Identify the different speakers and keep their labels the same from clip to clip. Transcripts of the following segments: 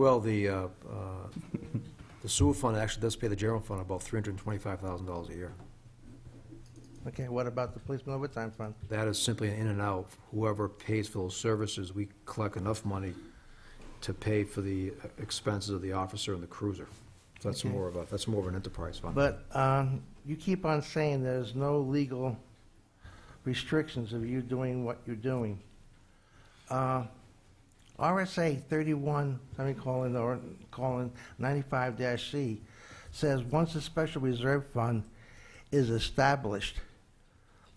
Speaker 1: Well, the, uh, uh, the sewer fund actually does pay the general fund about $325,000 a year.
Speaker 2: Okay, what about the policeman overtime fund?
Speaker 1: That is simply an in and out. Whoever pays for those services, we collect enough money to pay for the expenses of the officer and the cruiser. So that's
Speaker 2: Okay.
Speaker 1: more of a, that's more of an enterprise fund.
Speaker 2: But um, you keep on saying there's no legal restrictions of you doing what you're doing. Uh, RSA 31, let me call in, or colon 95-C, says, once a special reserve fund is established,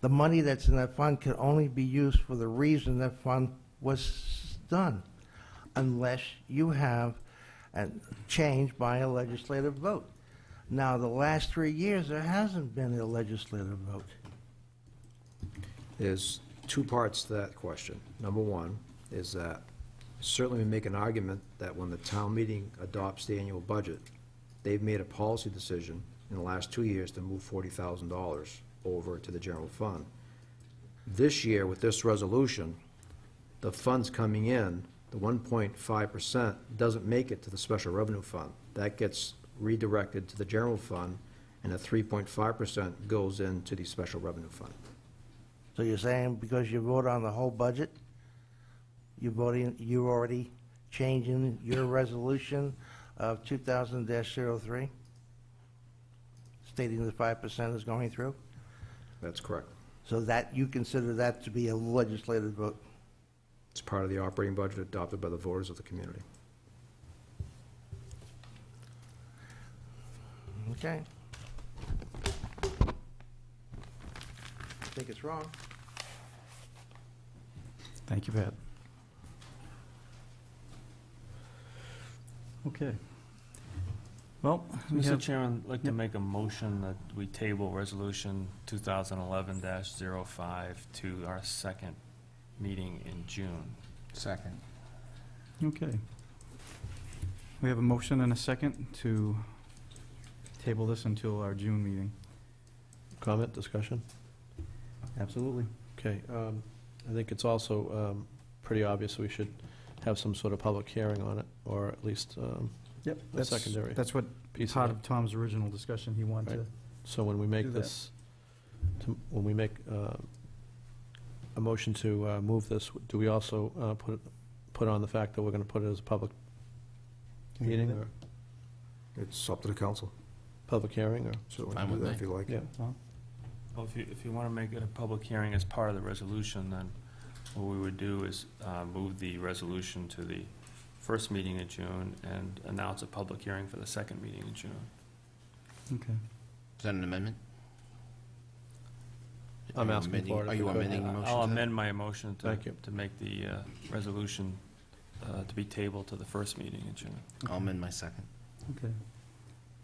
Speaker 2: the money that's in that fund can only be used for the reason that fund was done, unless you have a change by a legislative vote. Now, the last three years, there hasn't been a legislative vote.
Speaker 1: There's two parts to that question. Number one is that certainly we make an argument that when the town meeting adopts the annual budget, they've made a policy decision in the last two years to move forty thousand dollars over to the general fund. This year, with this resolution, the funds coming in, the one point five percent, doesn't make it to the special revenue fund. That gets redirected to the general fund, and the three point five percent goes into the special revenue fund.
Speaker 2: So you're saying because you vote on the whole budget, you're voting, you're already changing your resolution of 2000-03, stating the 5% is going through?
Speaker 1: That's correct.
Speaker 2: So that, you consider that to be a legislative vote?
Speaker 1: It's part of the operating budget adopted by the voters of the community.
Speaker 2: Okay. I think it's wrong.
Speaker 3: Thank you, Pat. Okay. Well, we
Speaker 4: Mr.
Speaker 3: have,
Speaker 4: Chairman, I'd like to
Speaker 3: Yep.
Speaker 4: make a motion that we table Resolution 2011-05 to our second meeting in June.
Speaker 5: Second.
Speaker 3: okay. We have a motion and a second to table this until our June meeting.
Speaker 6: Comment, discussion?
Speaker 3: Absolutely.
Speaker 6: Okay, um, I think it's also um, pretty obvious we should have some sort of public hearing on it, or at least, um,
Speaker 3: Yep.
Speaker 6: The
Speaker 3: that's-
Speaker 6: secondary
Speaker 3: That's what,
Speaker 6: piece
Speaker 3: part
Speaker 6: of it.
Speaker 3: of Tom's original discussion, he wanted to
Speaker 6: Right. So when we make
Speaker 3: Do that.
Speaker 6: this, to- when we make uh, a motion to uh, move this, do we also uh, put, put on the fact that we're going to put it as a public meeting or
Speaker 1: It's up to the council,
Speaker 6: public hearing, or,
Speaker 1: certainly,
Speaker 5: Fine
Speaker 1: do
Speaker 5: with
Speaker 1: that
Speaker 5: me.
Speaker 1: if you like.
Speaker 6: yeah,
Speaker 4: Well, if you, if you want to make it a public hearing as part of the resolution, then what we would do is uh, move the resolution to the first meeting in June and announce a public hearing for the second meeting in June.
Speaker 5: Is that an amendment? Are
Speaker 6: I'm
Speaker 5: you
Speaker 6: asking
Speaker 5: amending-
Speaker 6: for it if
Speaker 5: Are
Speaker 6: you
Speaker 5: you
Speaker 6: could.
Speaker 5: amending your
Speaker 4: Uh,
Speaker 5: motion?
Speaker 4: I'll
Speaker 5: to that?
Speaker 4: amend my motion to,
Speaker 6: Thank you.
Speaker 4: to make the uh, resolution uh, to be tabled to the first meeting in June.
Speaker 5: I'll amend my second.
Speaker 3: okay.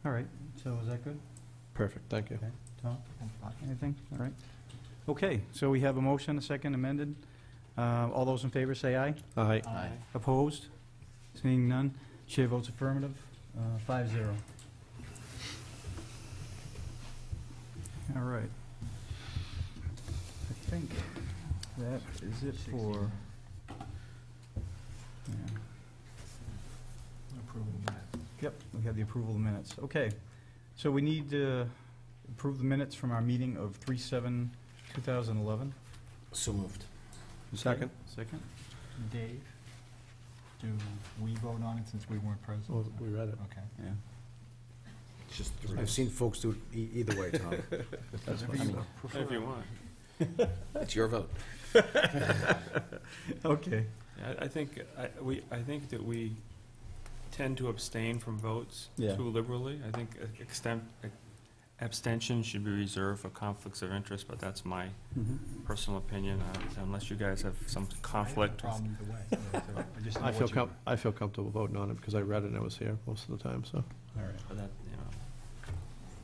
Speaker 3: All right, so is that good?
Speaker 6: perfect, thank you.
Speaker 3: Tom, anything? All right. Okay, so we have a motion, a second amended. Uh, All those in favor say aye.
Speaker 6: Aye.
Speaker 5: Aye.
Speaker 3: Opposed? Seeing none, chair votes affirmative, uh, five zero. All right. I think that is it for. Yeah. Yep, we have the approval of the minutes. Okay, so we need to approve the minutes from our meeting of three seven, two thousand eleven.
Speaker 5: So moved.
Speaker 6: Second?
Speaker 3: Second.
Speaker 7: Dave, do we vote on it since we weren't
Speaker 6: Well,
Speaker 7: present?
Speaker 6: We read it.
Speaker 7: Okay.
Speaker 3: Yeah.
Speaker 5: It's just three.
Speaker 1: I've seen folks do it e- either way, Tom.
Speaker 6: That's
Speaker 7: Whatever
Speaker 6: fine.
Speaker 7: you
Speaker 4: If you want.
Speaker 5: It's your vote.
Speaker 3: Okay.
Speaker 4: Yeah, I I think, I, we, I think that we tend to abstain from votes
Speaker 3: Yeah.
Speaker 4: too liberally. I think extent, abstention should be reserved for conflicts of interest, but that's my
Speaker 7: Mm-hmm.
Speaker 4: personal opinion, uh, unless you guys have some conflict.
Speaker 7: I have no problem either way, so- so I just know
Speaker 6: I
Speaker 7: what
Speaker 6: feel
Speaker 7: you-
Speaker 6: com, I feel comfortable voting on it because I read it and I was here most of the time, so.
Speaker 3: All right.
Speaker 4: but that,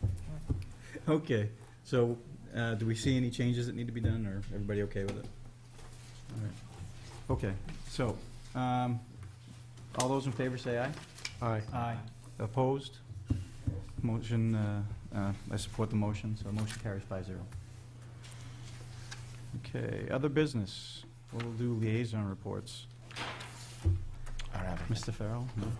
Speaker 4: you know.
Speaker 3: Okay, so, uh, do we see any changes that need to be done, or everybody okay with it? All right. Okay, so, um, all those in favor say aye.
Speaker 6: Aye.
Speaker 3: Aye. Opposed? Motion, uh, uh, I support the motion, so motion carries five zero. Okay, other business, we'll do liaison reports.
Speaker 5: I don't have it.
Speaker 3: Mr. Farrell? No?